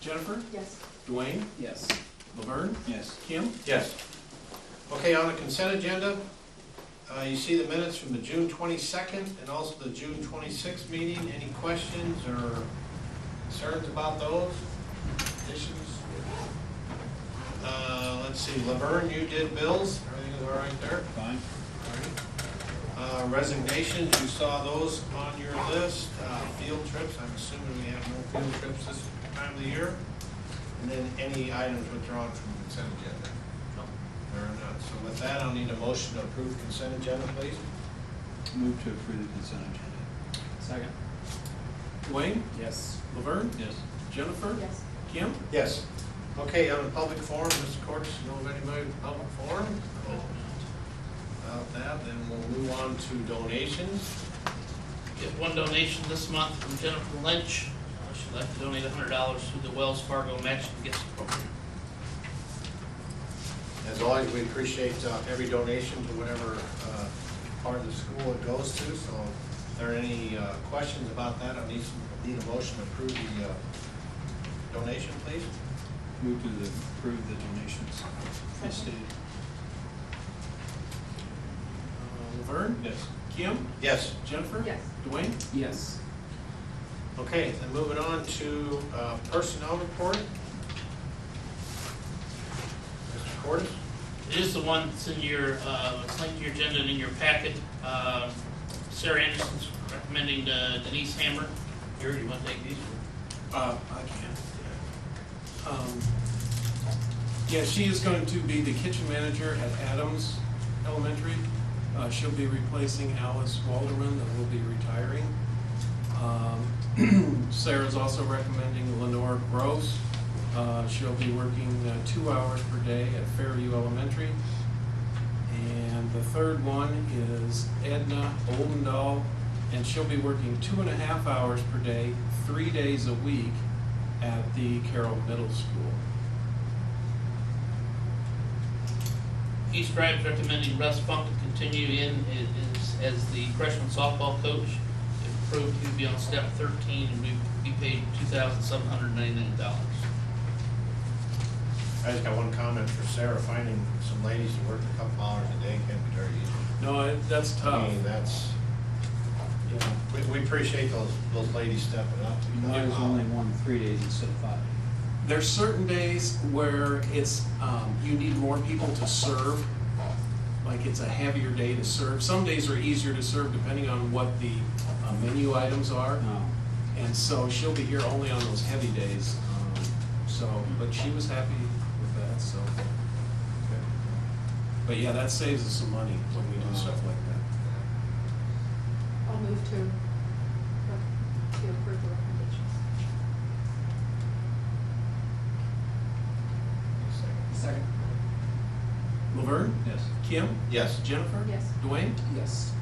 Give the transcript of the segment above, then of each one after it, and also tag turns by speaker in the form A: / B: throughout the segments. A: Jennifer,
B: Yes.
A: Dwayne,
C: Yes.
A: Laverne,
C: Yes.
A: Kim,
D: Yes. Okay, on the consent agenda, uh, you see the minutes from the June twenty-second and also the June twenty-sixth meeting. Any questions or concerns about those additions? Uh, Let's see, Laverne, you did bills, everything is all right there?
C: Fine.
D: Uh, Resignations, you saw those on your list. Uh, Field trips, I'm assuming we have no field trips this time of the year. And then any items withdrawn from the consent agenda? No. There are none. So with that, I'll need a motion to approve consent agenda, please.
C: Move to approve the consent agenda.
A: Second. Dwayne,
C: Yes.
A: Laverne,
C: Yes.
A: Jennifer,
B: Yes.
A: Kim,
D: Yes. Okay, on the public forum, Mr. Cordes, you know of anybody in the public forum? About that, then we'll move on to donations.
E: Get one donation this month from Jennifer Lynch. Uh, She'd like to donate hundred dollars to the Wells Fargo Match and Gifts Program.
D: As always, we appreciate uh, every donation to whatever uh, part of the school it goes to, so if there are any uh, questions about that, I need some, need a motion to approve the uh, donation, please.
C: Move to the- approve the donations. As stated.
A: uh, Laverne,
C: Yes.
A: Kim,
D: Yes.
A: Jennifer,
B: Yes.
A: Dwayne,
C: Yes.
D: Okay, then moving on to uh, personnel report. Mr. Cordes?
E: It is the one that's in your, uh, it's linked to your agenda and in your packet. Uh, Sarah Anderson's recommending uh, Denise Hammer. Gary, you want to take these?
A: Uh, I can. Um, Yeah, she is going to be the kitchen manager at Adams Elementary. Uh, she'll be replacing Alice Walderman, that will be retiring. Um, Sarah's also recommending Lenore Gross. Uh, she'll be working uh, two hours per day at Fairview Elementary. And the third one is Edna Oldendal, and she'll be working two and a half hours per day, three days a week at the Carroll Middle School.
E: East Drive's recommending Russ Funk to continue in i- is- as the freshman softball coach. If approved, he'd be on step thirteen and we'd be paid two thousand seven hundred ninety-nine dollars.
D: I just got one comment for Sarah, finding some ladies to work a couple hours a day can be very easy.
A: No, it- that's
D: I
A: tough.
D: mean, that's, we, we appreciate those, those ladies stepping up. to
C: You know,
D: help
C: There's
D: out.
C: only one three days instead of five.
A: There's certain days where it's, um, you need more people to serve, like it's a heavier day to serve. Some days are easier to serve depending on what the uh, menu items are.
C: No.
A: And so she'll be here only on those heavy days. um, So, but she was happy with that, so. But yeah, that saves us some money when we do stuff like that.
B: I'll move to, uh, to approve the recommendations.
C: Second.
A: Laverne,
C: Yes.
A: Kim,
D: Yes.
A: Jennifer?
B: Yes.
A: Dwayne?
C: Yes.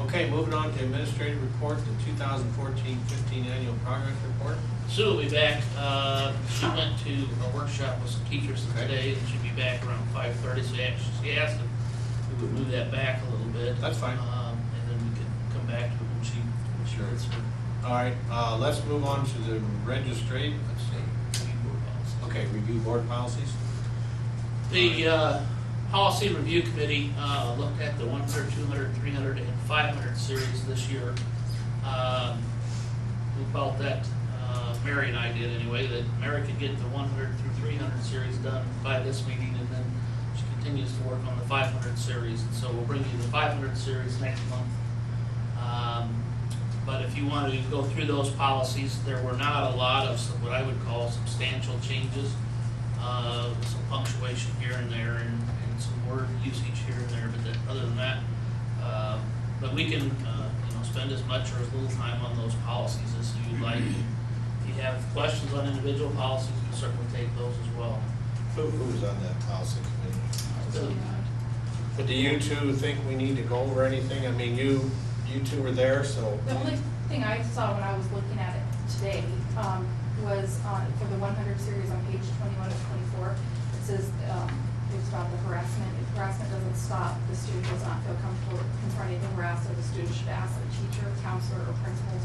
D: Okay, moving on to administrative report, the 2014-15 annual progress report.
E: Sue will be back, uh, she went to a workshop with some teachers
D: Okay.
E: today, and she'll be back around five thirty, so actually, she asked if we would move that back a little bit.
D: That's fine.
E: Um, and then we can come back to it when she, when she
D: Sure.
E: gets her,
D: All right, uh, let's move on to the registrate, let's see,
E: review policy.
D: okay, review board policies.
E: The uh, Policy Review Committee uh, looked at the 100, 200, 300, and 500 series this year. Um, We felt that, uh, Mary and I did anyway, that Mary could get the 100 through 300 series done by this meeting, and then she continues to work on the 500 series. And so we'll bring you the 500 series next month. Um, But if you wanted to go through those policies, there were not a lot of some- what I would call substantial changes. Uh, Some punctuation here and there and and some word usage here and there, but then, other than that, um, but we can, uh, you know, spend as much or as little time on those policies as you'd like. If you have questions on individual policies, we certainly take those as well.
D: Who, who's on that policy committee?
E: So,
D: But do you two think we need to go over anything? I mean, you, you two were there, so.
F: The only thing I saw when I was looking at it today um, was on, for the 100 series on page 21 of 24, it says, um, it's about the harassment. If harassment doesn't stop, the student does not feel comfortable confronting the harasser, the student should ask a teacher, counselor, or principal